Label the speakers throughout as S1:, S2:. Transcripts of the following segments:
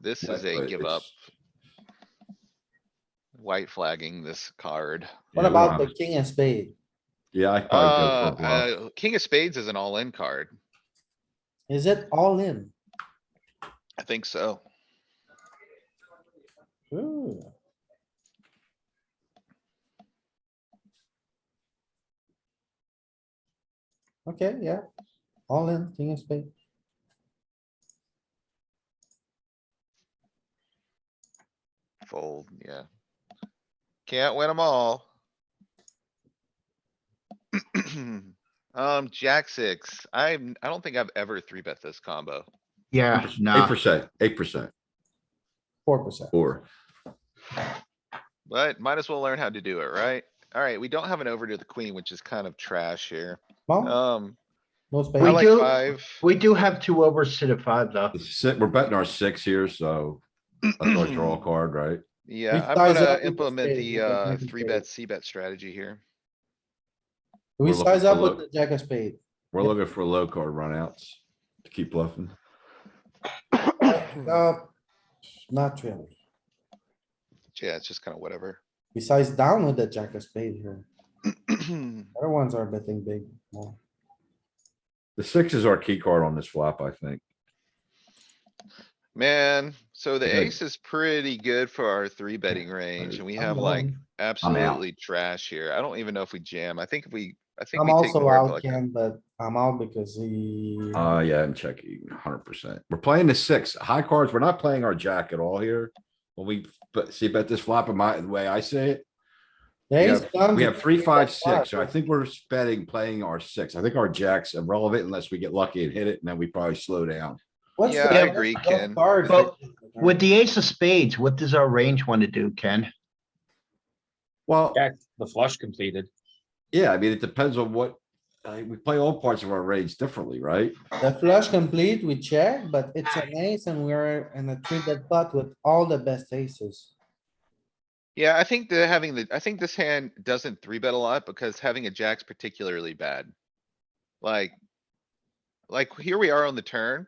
S1: This is a
S2: but
S1: give
S2: it's-
S1: up, white flagging this card.
S3: What
S2: yeah, we don't
S3: about the
S2: have-
S3: king and spade?
S2: Yeah, I probably
S1: Uh,
S2: go for a bluff.
S1: uh, king of spades is an all-in card.
S3: Is it all in?
S1: I think so.
S3: Ooh. Okay, yeah, all in, king of spade.
S1: Fold, yeah. Can't win them all. Um, jack six. I'm, I don't think I've ever three bet this combo.
S4: Yeah,
S2: Eight
S4: no,
S2: percent, eight percent,
S3: Four percent.
S2: or
S1: But might as well learn how to do it, right? Alright, we don't have an over to the queen, which is kind of trash here.
S3: Well,
S1: Um,
S3: no
S1: I
S4: We
S3: spade.
S1: like
S4: do-
S1: five.
S4: we do have two overs to the five though.
S2: the si- we're betting our six here, so that's our draw card, right?
S1: Yeah, I'm
S3: size up
S1: gonna
S3: with the
S1: implement
S3: spade,
S1: the,
S3: we don't
S1: uh,
S3: have the
S1: three
S3: spade.
S1: bet, c bet strategy here.
S3: We
S2: we're looking
S3: size up
S2: for
S3: with the
S2: low.
S3: jack of spade.
S2: We're looking for low card runouts to keep bluffing.
S3: Uh, not really.
S1: Yeah, it's just kinda whatever.
S3: We size down with the jack of spade here. Other ones are betting big more.
S2: The six is our key card on this flop, I think.
S1: Man, so the
S2: Okay.
S1: ace is pretty good for our three betting range and we have
S3: I'm
S1: like
S3: alone.
S1: absolutely trash here. I don't even know if we jam. I think if we, I think
S3: I'm
S1: we take
S3: also
S1: more of
S3: out,
S1: like.
S3: Ken, but I'm out because
S1: Mm-hmm.
S3: he,
S2: Uh, yeah, I'm checking hundred percent. We're playing the six high cards. We're not playing our jack at all here. When we, but see, bet this flop in my, the way I say it,
S3: the
S2: we
S3: ace
S2: have-
S3: done
S2: we
S3: to
S2: have three,
S3: three,
S2: five,
S3: bet
S2: six. So I
S3: five.
S2: think we're betting, playing our six. I think our jack's irrelevant unless we get lucky and hit it, and then we probably slow down.
S3: What's
S1: Yeah,
S3: the
S1: I
S3: best-
S1: agree,
S3: best
S1: Ken.
S3: card
S4: But
S3: for-
S4: With the ace of spades, what does our range want to do, Ken?
S2: Well,
S5: Jack, the flush completed.
S2: yeah, I mean, it depends on what, uh, we play all parts of our range differently, right?
S3: The flush complete, we check, but it's an ace and we're in a three bet pot with all the best aces.
S1: Yeah, I think the having the, I think this hand doesn't three bet a lot because having a jack's particularly bad. Like. Like here we are on the turn.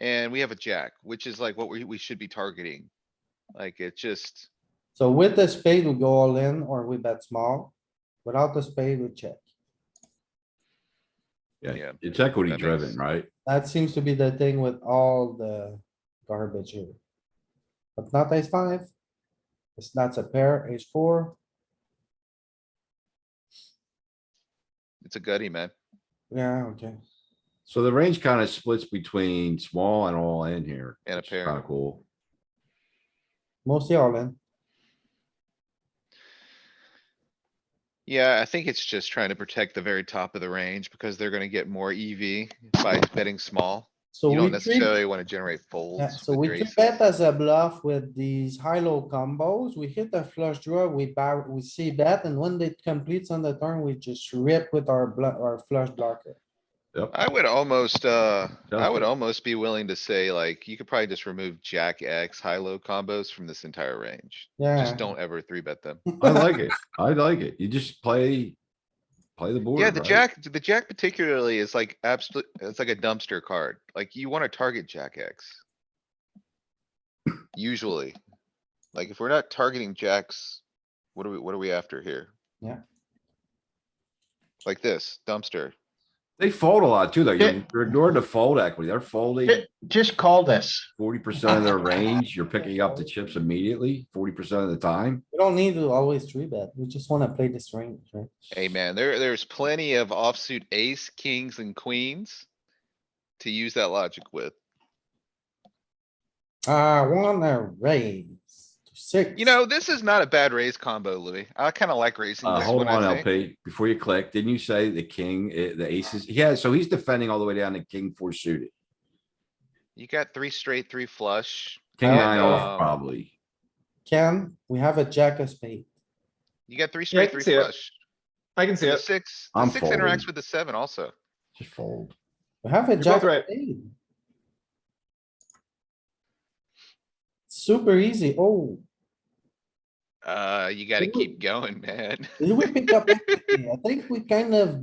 S1: And we have a jack, which is like what we, we should be targeting. Like it just,
S3: So with the spade, we go all in or we bet small. Without the spade, we check.
S2: Yeah,
S1: Yeah,
S2: it's equity
S1: that makes-
S2: driven, right?
S3: That seems to be the thing with all the garbage here. But not ace five. It's not a pair, ace four.
S1: it's a gutty, man.
S3: Yeah, okay.
S2: So the range kind of splits between small and all in here.
S1: And a pair.
S2: Kind of cool.
S3: Mostly all in.
S1: Yeah, I think it's just trying to protect the very top of the range because they're gonna get more EV by betting small.
S3: So
S1: You
S3: we
S1: don't
S3: treat,
S1: necessarily wanna generate
S3: yeah,
S1: folds.
S3: so
S1: with
S3: we
S1: your E
S3: three
S1: aces.
S3: bet as a bluff with these high-low combos. We hit the flush draw, we bar, we see bet, and when it completes on the turn, we just rip with our bluff, our flush blocker.
S2: Yep.
S1: I would almost, uh, I would
S2: Definitely.
S1: almost be willing to say like, you could probably just remove jack X, high-low combos from this entire range.
S3: Yeah,
S1: Just don't ever three bet them.
S2: I like it. I like it. You just play, play the board.
S1: Yeah, the
S2: right?
S1: jack, the jack particularly is like absolute, it's like a dumpster card. Like you wanna target jack X. Usually. Like if we're not targeting jacks, what are we, what are we after here?
S3: Yeah.
S1: Like this dumpster.
S2: They fold a lot too, though.
S4: Yeah.
S2: You're you're ignoring the fold equity. They're folding
S4: Ju- Just call this.
S2: forty percent of their range. You're picking up the chips immediately, forty percent of the time.
S3: we don't need to always three bet. We just wanna play this range, right?
S1: Hey, man, there, there's plenty of offsuit ace, kings and queens. To use that logic with.
S3: I Ah, wanna raise to six.
S1: You know, this is not a bad raise combo, Louis. I kinda like raising
S2: Uh,
S1: this
S2: hold
S1: one,
S2: on,
S1: I think.
S2: LP, before you click, didn't you say the king, eh, the aces? Yeah, so he's defending all the way down to king four suited.
S1: You got three straight, three flush.
S2: King
S3: And,
S2: nine
S1: um,
S2: off probably.
S3: Ken, we have a jack of spade.
S1: You got three
S5: Yeah, I
S1: straight,
S5: can
S1: three
S5: see it.
S1: flush.
S5: I can see
S1: And The
S5: it.
S1: six, the
S2: I'm
S1: six
S2: folding.
S1: interacts with the seven also.
S2: Just fold.
S3: We have a
S5: both
S3: jack of
S5: right.
S3: spade. Super easy. Oh,
S1: Uh, you gotta
S3: Ooh.
S1: keep going, man.
S3: did we pick up? anything? I think we kind of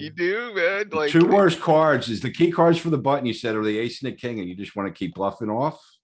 S1: You do, man,
S2: The
S1: like.
S2: Two worst cards is the key cards for the button you said are the ace and the king, and you just wanna keep bluffing off.